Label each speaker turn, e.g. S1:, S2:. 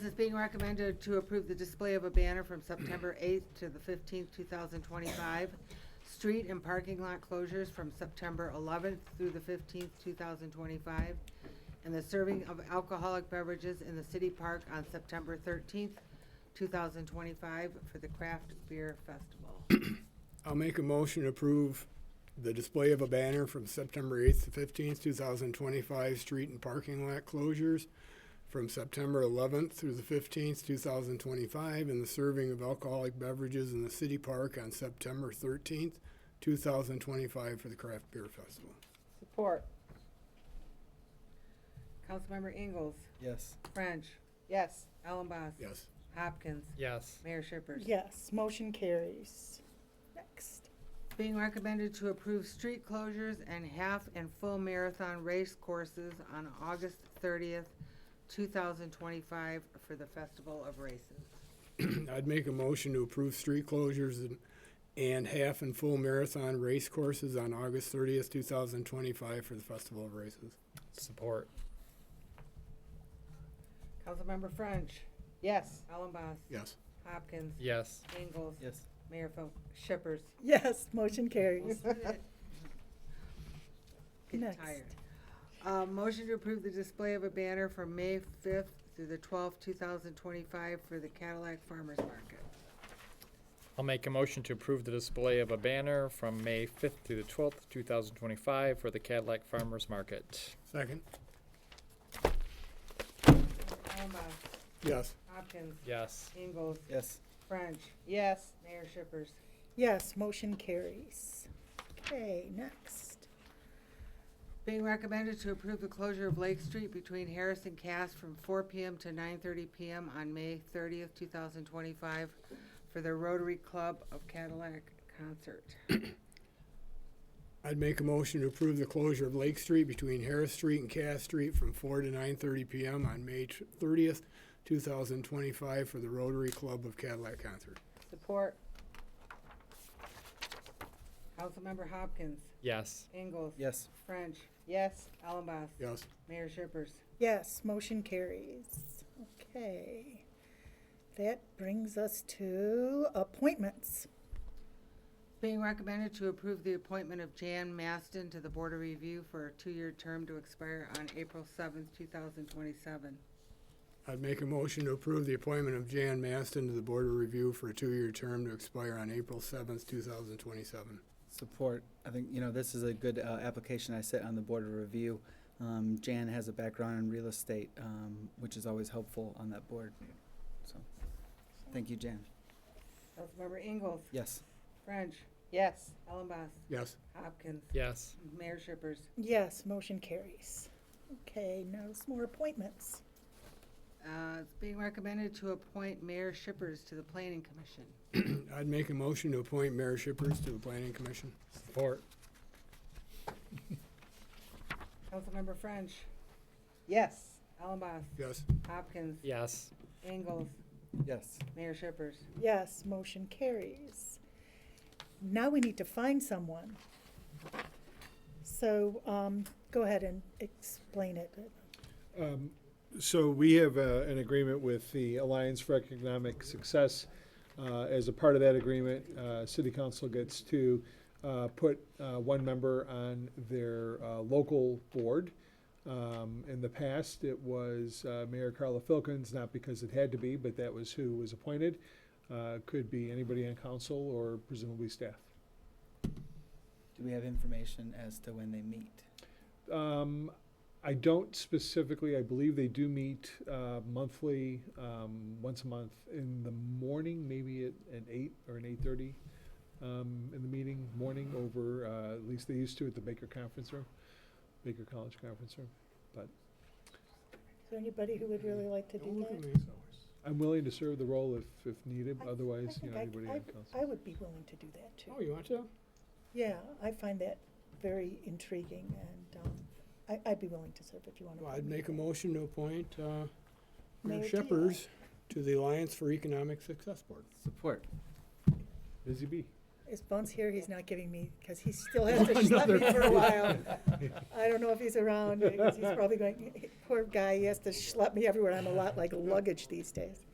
S1: It's being recommended to approve the display of a banner from September 8th to the 15th, 2025. Street and parking lot closures from September 11th through the 15th, 2025. And the serving of alcoholic beverages in the city park on September 13th, 2025 for the Craft Beer Festival.
S2: I'll make a motion to approve the display of a banner from September eighth to fifteenth, two thousand twenty-five, street and parking lot closures from September eleventh through the fifteenth, two thousand twenty-five, and the serving of alcoholic beverages in the city park on September thirteenth, two thousand twenty-five for the craft beer festival.
S1: Support. Councilmember Ingalls,
S3: Yes.
S1: French,
S4: Yes.
S1: Ellenboss,
S2: Yes.
S1: Hopkins,
S3: Yes.
S1: Mayor Shippers.
S4: Yes, motion carries. Next.
S1: Being recommended to approve street closures and half and full marathon race courses on August thirtieth, two thousand twenty-five for the Festival of Races.
S2: I'd make a motion to approve street closures and, and half and full marathon race courses on August thirtieth, two thousand twenty-five for the festival of races.
S3: Support.
S1: Councilmember French,
S4: Yes.
S1: Ellenboss,
S2: Yes.
S1: Hopkins,
S3: Yes.
S1: Ingalls,
S3: Yes.
S1: Mayor Phil, Shippers.
S4: Yes, motion carries.
S1: Getting
S4: Next.
S1: tired. Uh, motion to approve the display of a banner from May fifth through the twelfth, two thousand twenty-five for the Cadillac Farmers Market.
S3: I'll make a motion to approve the display of a banner from May fifth to the twelfth, two thousand twenty-five for the Cadillac Farmers Market.
S2: Second?
S1: Ellenboss,
S2: Yes.
S1: Hopkins,
S3: Yes.
S1: Ingalls,
S3: Yes.
S1: French,
S4: Yes.
S1: Mayor Shippers.
S4: Yes, motion carries. Okay, next.
S1: Being recommended to approve the closure of Lake Street between Harris and Cass from four PM to nine thirty PM on May thirtieth, two thousand twenty-five for the Rotary Club of Cadillac Concert.
S2: I'd make a motion to approve the closure of Lake Street between Harris Street and Cass Street from four to nine thirty PM on May thirtieth, two thousand twenty-five for the Rotary Club of Cadillac Concert.
S1: Support. Councilmember Hopkins,
S3: Yes.
S1: Ingalls.
S3: Yes.
S1: French,
S4: Yes.
S1: Allenboss,
S2: Yes.
S1: Mayor Shippers.
S4: Yes, motion carries. Okay. That brings us to appointments.
S1: Being recommended to approve the appointment of Jan Maston to the Board of Review for a two-year term to expire on April seventh, two thousand twenty-seven.
S2: I'd make a motion to approve the appointment of Jan Maston to the Board of Review for a two-year term to expire on April seventh, two thousand twenty-seven.
S5: support. I think, you know, this is a good uh, application. I sit on the Board of Review. Um, Jan has a background in real estate, um, which is always helpful on that board. So, thank you, Jan.
S1: Councilmember Ingalls,
S5: Yes.
S1: French,
S4: Yes.
S1: Allenboss,
S2: Yes.
S1: Hopkins,
S3: Yes.
S1: Mayor Shippers.
S4: Yes, motion carries. Okay, now some more appointments.
S1: Uh, It's being recommended to appoint Mayor Shippers to the Planning Commission.
S2: I'd make a motion to appoint Mayor Shippers to the Planning Commission.
S3: Support.
S1: Councilmember French,
S4: Yes.
S1: Allenboss,
S2: Yes.
S1: Hopkins,
S3: Yes.
S1: Ingalls,
S5: Yes.
S1: Mayor Shippers.
S4: Yes, motion carries. Now we need to find someone. So, um, go ahead and explain it.
S6: Um, So we have uh, an agreement with the Alliance for Economic Success. Uh, As a part of that agreement, uh, City Council gets to uh, put uh, one member on their uh, local board. Um, In the past, it was uh, Mayor Carla Filkins, not because it had to be, but that was who was appointed. Uh, Could be anybody on council or presumably staff.
S5: Do we have information as to when they meet?
S6: Um, I don't specifically, I believe they do meet, uh, monthly, um, once a month in the morning, maybe at, at eight or an eight-thirty, um, in the meeting, morning over, uh, at least they used to at the Baker Conference Room, Baker College Conference Room.
S4: Is there anybody who would really like to do that?
S6: I'm willing to serve the role if, if needed,
S4: I- I
S6: otherwise, you
S4: think
S6: know,
S4: I-
S6: anybody
S4: I-
S6: on council.
S4: I would be willing to do that
S2: Oh,
S4: too.
S2: you want to?
S4: Yeah, I find that very intriguing and, um, I, I'd be willing to serve if you want to.
S2: Well, I'd make a motion to appoint, uh, Mayor
S4: Mayor Dion.
S2: Shippers to the Alliance for Economic Success Board.
S5: Support.
S6: Busy bee.
S4: If Bunce here, he's not giving me, because he still has to schlep me for a while. I don't know if he's around, because he's probably going, poor guy, he has to schlep me everywhere. I'm a lot like luggage these days.